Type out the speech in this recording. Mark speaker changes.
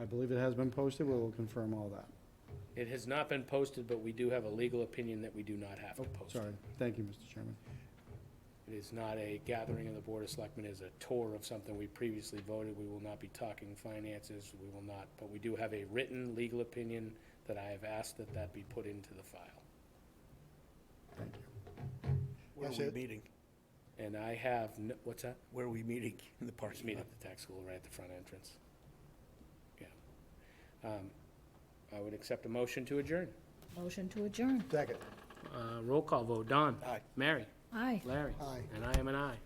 Speaker 1: I believe it has been posted, we will confirm all that.
Speaker 2: It has not been posted, but we do have a legal opinion that we do not have to post
Speaker 1: Sorry,
Speaker 2: it.
Speaker 1: thank you, Mr. Chairman.
Speaker 2: It is not a gathering of the Board of Selectmen, it is a tour of something we previously voted. We will not be talking finances, we will not, but we do have a written legal opinion that I have asked that that be put into the file.
Speaker 1: Thank you.
Speaker 3: Where are
Speaker 4: That's
Speaker 3: we
Speaker 4: it.
Speaker 3: meeting?
Speaker 2: And I have, n- what's that?
Speaker 3: Where are we meeting? In the
Speaker 2: Just
Speaker 3: parking
Speaker 2: meet
Speaker 3: lot?
Speaker 2: at the tax school right at the front entrance. Yeah. Um, I would accept a motion to adjourn.
Speaker 5: Motion to adjourn.
Speaker 4: Second.
Speaker 2: Uh, Roll call vote, Don.
Speaker 3: Aye.
Speaker 2: Mary.
Speaker 5: Aye.
Speaker 2: Larry.
Speaker 4: Aye.
Speaker 2: And I am an aye.